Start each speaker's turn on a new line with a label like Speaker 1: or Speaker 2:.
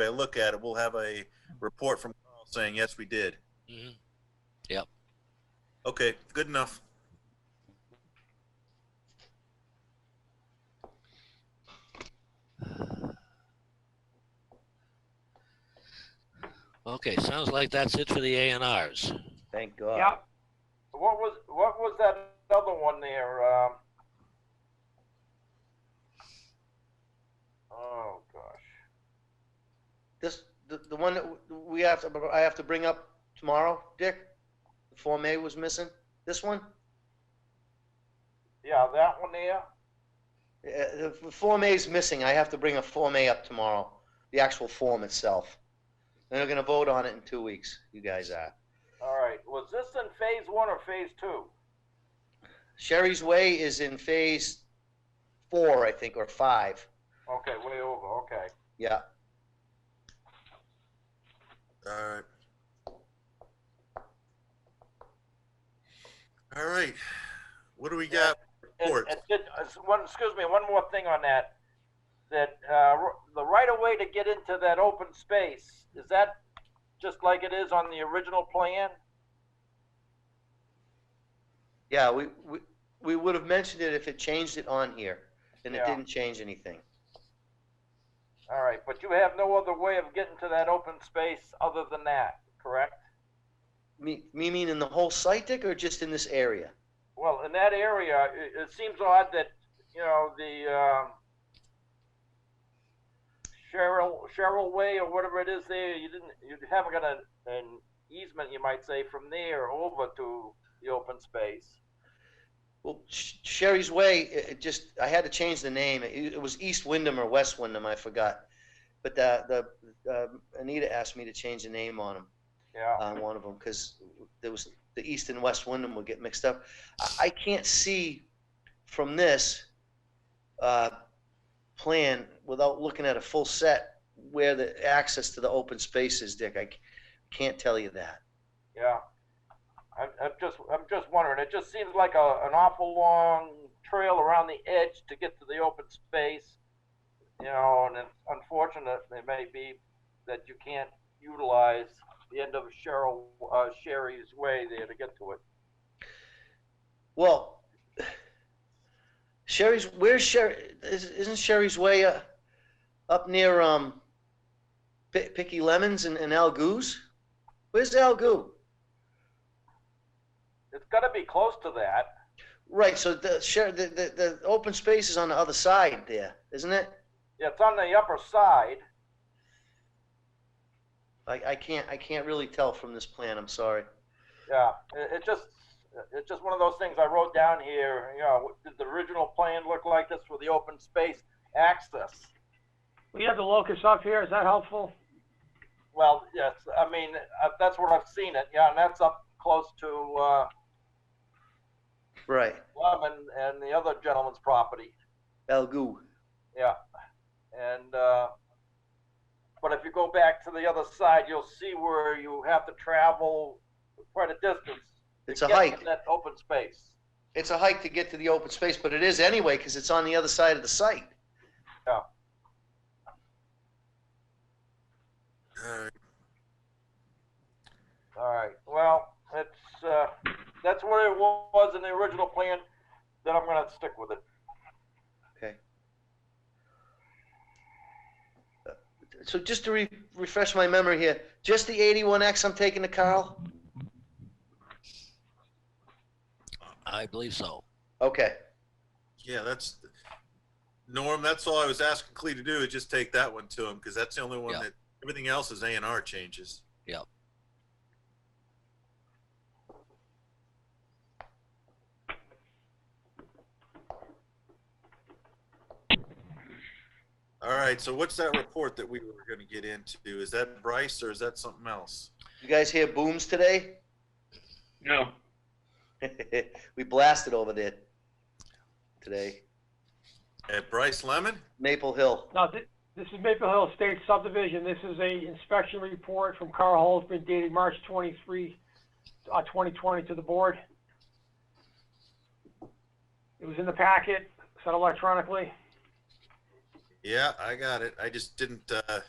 Speaker 1: anybody look at it, we'll have a report from Carl saying, yes, we did.
Speaker 2: Mhm.
Speaker 1: Okay, good enough.
Speaker 2: Okay, sounds like that's it for the A and Rs.
Speaker 3: Thank God.
Speaker 4: Yeah. What was, what was that other one there, um? Oh, gosh.
Speaker 3: This, the, the one that w- we have to, I have to bring up tomorrow, Dick? The Form A was missing? This one?
Speaker 4: Yeah, that one there,
Speaker 3: Uh, the Form A is missing. I have to bring a Form A up tomorrow, the actual form itself. And they're gonna vote on it in two weeks, you guys are.
Speaker 4: all right, was this in phase one or phase two?
Speaker 3: Sherry's Way is in phase four, I think, or five.
Speaker 4: Okay, way over, okay.
Speaker 3: Yeah,
Speaker 1: All right. All right. What do we got?
Speaker 4: And-
Speaker 1: Court.
Speaker 4: and did- uh, One, excuse me, one more thing on that, that, uh, r- the right of way to get into that open space, is that just like it is on the original plan?
Speaker 3: yeah, we, we, we would have mentioned it if it changed it on here, and it
Speaker 4: Yeah.
Speaker 3: didn't change anything.
Speaker 4: All right, but you have no other way of getting to that open space other than that, correct?
Speaker 3: Me, me meaning the whole site, Dick, or just in this area?
Speaker 4: Well, in that area, it, it seems odd that, you know, the, um, Cheryl, Cheryl Way or whatever it is there, you didn't, you haven't got an, an easement, you might say, from there over to the open space.
Speaker 3: Well, Sh- Sherry's Way, it, it just, I had to change the name. It, it was East Wyndham or West Wyndham, I forgot. But the, the, um Anita asked me to change the name on them,
Speaker 4: Yeah,
Speaker 3: on one of them, because there was, the East and West Wyndham would get mixed up. I, I can't see from this, uh, plan without looking at a full set where the access to the open space is, Dick. I c- can't tell you that.
Speaker 4: yeah. I'm, I'm just, I'm just wondering, it just seems like a, an awful long trail around the edge to get to the open space. You know, and it's unfortunate it may be that you can't utilize the end of Cheryl, uh, Sherry's way there to get to it.
Speaker 3: Well, Sherry's, where's Sherry, is- isn't Sherry's Way uh, up near um, Pi- Picky Lemons and, and Al Goo's? Where's Al Goo?
Speaker 4: It's gotta be close to that.
Speaker 3: Right, so the, Sher, the, the, the open space is on the other side there, isn't it?
Speaker 4: Yeah, It's on the upper side.
Speaker 3: I, I can't, I can't really tell from this plan, I'm sorry.
Speaker 4: Yeah, it, it just, it's just one of those things I wrote down here, you know, did the original plan look like this for the open space access?
Speaker 5: We have the locus up here, is that helpful?
Speaker 4: Well, yes, I mean, uh, that's where I've seen it, yeah, and that's up close to, uh,
Speaker 3: Right,
Speaker 4: Lemon and the other gentleman's property,
Speaker 3: Al Goo.
Speaker 4: yeah. And, uh, but if you go back to the other side, you'll see where you have to travel quite a distance. to
Speaker 3: It's a
Speaker 4: get to
Speaker 3: hike.
Speaker 4: That open space,
Speaker 3: It's a hike to get to the open space, but it is anyway, because it's on the other side of the site.
Speaker 1: All right.
Speaker 4: all right, well, it's, uh, that's where it wa- was in the original plan, then I'm gonna stick with it.
Speaker 3: So just to re- refresh my memory here, just the 81X I'm taking to Carl?
Speaker 2: I believe so.
Speaker 3: Okay.
Speaker 1: Yeah, that's Norm. That's all I was asking Clee to do is just take that one to him because that's the only one
Speaker 2: Yeah.
Speaker 1: that everything else is A and R changes. All right. So what's that report that we were going to get into? Is that Bryce or is that something else?
Speaker 3: You guys hear booms today?
Speaker 6: No,
Speaker 3: we blasted over there today.
Speaker 1: At Bryce Lemon?
Speaker 3: Maple Hill.
Speaker 5: Now, thi- this is Maple Hill State subdivision, this is a inspection report from Carl Holzman dated March 23, uh, 2020 to the board. It was in the packet, sent electronically.
Speaker 1: Yeah, I got it. I just didn't. Uh,